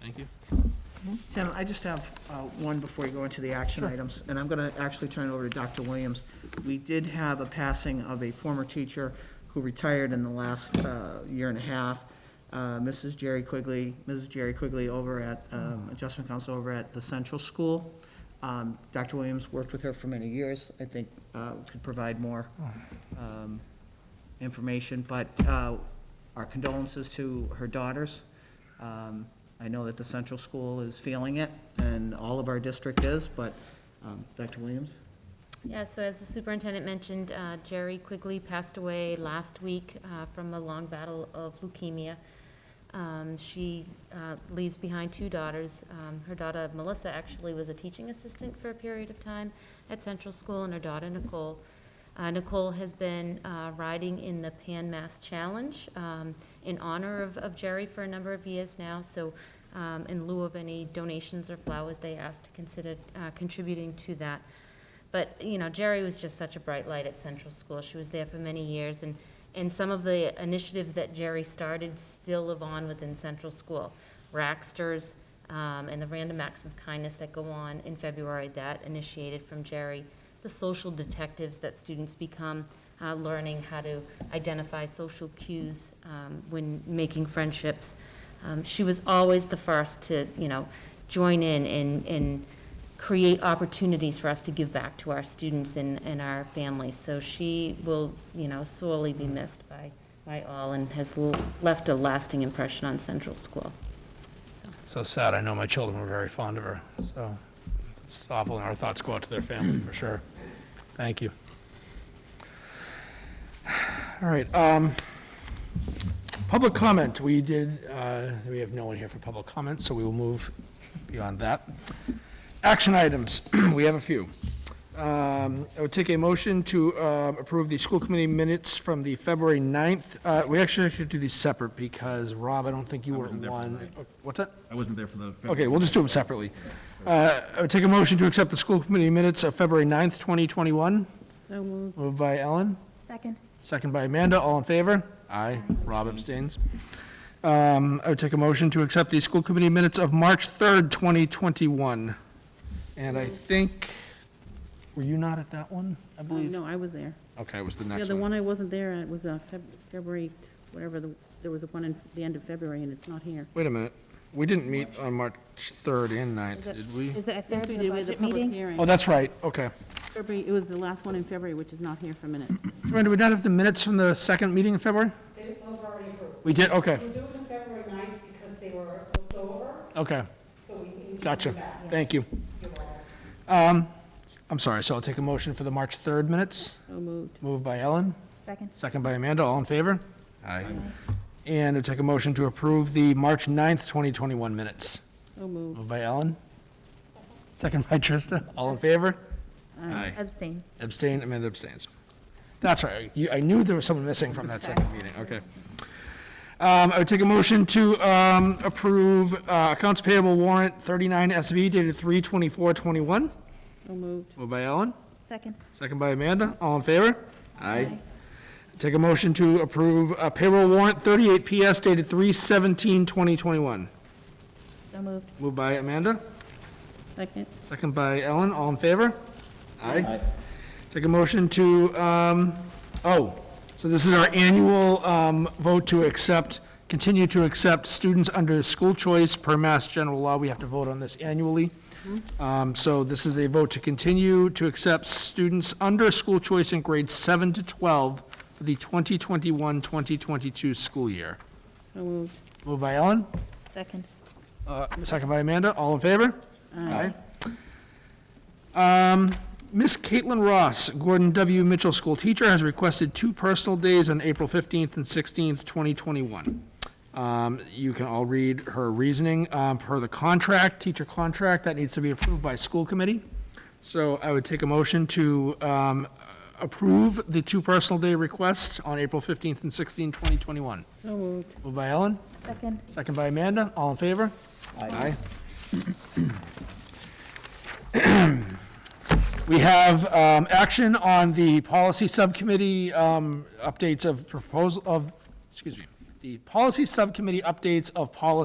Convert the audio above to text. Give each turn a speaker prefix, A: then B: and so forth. A: Thank you.
B: Tim, I just have uh, one before you go into the action items, and I'm going to actually turn it over to Dr. Williams. We did have a passing of a former teacher who retired in the last uh, year and a half, uh, Mrs. Jerry Quigley, Mrs. Jerry Quigley over at um, Adjustment Council over at the Central School. Um, Dr. Williams worked with her for many years, I think uh, could provide more um, information, but uh, our condolences to her daughters. Um, I know that the central school is feeling it, and all of our district is, but um, Dr. Williams?
C: Yeah, so as the superintendent mentioned, uh, Jerry Quigley passed away last week uh, from a long battle of leukemia. Um, She uh, leaves behind two daughters. Um, Her daughter Melissa actually was a teaching assistant for a period of time at Central School, and her daughter Nicole. Uh, Nicole has been uh, riding in the Pan Mass Challenge um, in honor of of Jerry for a number of years now, so um, in lieu of any donations or flowers, they asked to consider uh, contributing to that. But, you know, Jerry was just such a bright light at Central School. She was there for many years, and, and some of the initiatives that Jerry started still live on within Central School. Racksters, um, and the Random Acts of Kindness that go on in February, that initiated from Jerry. The social detectives that students become, uh, learning how to identify social cues, um, when making friendships. Um, she was always the first to, you know, join in and, and create opportunities for us to give back to our students and, and our families. So she will, you know, sorely be missed by, by all and has l- left a lasting impression on Central School.
A: So sad. I know my children were very fond of her, so it's awful, and our thoughts go out to their family, for sure. Thank you. All right, um, public comment. We did, uh, we have no one here for public comment, so we will move beyond that. Action items, we have a few. Um, I would take a motion to uh, approve the school committee minutes from the February 9th. Uh, We actually should do these separate because, Rob, I don't think you were
D: wasn't
A: at
D: there for
A: one. Oh, What's that?
D: I wasn't there for the.
A: Okay, we'll just do them separately. Uh, I would take a motion to accept the school committee minutes of February 9th, 2021. Moved by Ellen,
E: Second.
A: second by Amanda, all in favor? Aye. Rob abstains. Um, I would take a motion to accept the school committee minutes of March 3rd, 2021. And I think, were you not at that one, I
F: Oh,
A: believe?
F: No, I was there.
A: Okay, it was the
F: Yeah,
A: next
F: the
A: one.
F: one I wasn't there at was uh, Feb- February, t- whatever, the there was a one in the end of February, and it's not here.
A: Wait a minute, we didn't meet on March 3rd and 9th,
E: that-
A: did we?
E: Is that a
F: Yes,
E: third
F: we
E: of the
F: did. We had the
E: budget
F: public
E: meeting?
F: hearing.
A: Oh, that's right, okay.
F: February, it was the last one in February, which is not here for a minute.
A: Ren, do we not have the minutes from the second meeting in February?
G: Those were already approved.
A: We did, okay,
G: We're doing them February 9th because they were looked over,
A: okay.
G: so we need to.
A: Gotcha.
G: come back.
A: Thank you. Um,
G: You're welcome.
A: I'm sorry, so I'll take a motion for the March 3rd minutes,
F: So moved.
A: moved by Ellen,
E: Second.
A: second by Amanda, all in favor? Aye. And I'll take a motion to approve the March 9th, 2021 minutes,
F: So moved.
A: moved by Ellen, second by Trista, all in favor?
F: Aye.
E: Abstain.
A: Abstain, Amanda abstains. That's right, you- I knew there was someone missing from that second meeting, okay. Um, I would take a motion to um, approve uh, accounts payable warrant 39 SV dated 3/24/21,
F: So moved.
A: moved by Ellen,
E: Second.
A: Second by Amanda, all in favor? Aye. Take a motion to approve uh, payroll warrant 38 PS dated 3/17/2021.
E: So moved.
A: Moved by Amanda,
F: Second.
A: second by Ellen, all in favor? Aye. Take a motion to, um, oh, so this is our annual um, vote to accept, continue to accept students under school choice per Mass General Law. We have to vote on this annually. Um, So this is a vote to continue to accept students under school choice in grades 7 to 12 for the 2021-2022 school year.
F: So moved.
A: Moved by Ellen,
E: Second.
A: uh, second by Amanda, all in favor? Aye. Um, Ms. Caitlin Ross, Gordon W. Mitchell School Teacher, has requested two personal days on April 15th and 16th, 2021. Um, You can all read her reasoning um, per the contract, teacher contract, that needs to be approved by school committee. So I would take a motion to um, approve the two personal day requests on April 15th and 16th, 2021.
F: So moved.
A: Moved by Ellen?
E: Second.
A: Second by Amanda, all in favor? Aye. We have um, action on the policy subcommittee um, updates of proposal of, excuse me, the policy subcommittee updates of policy.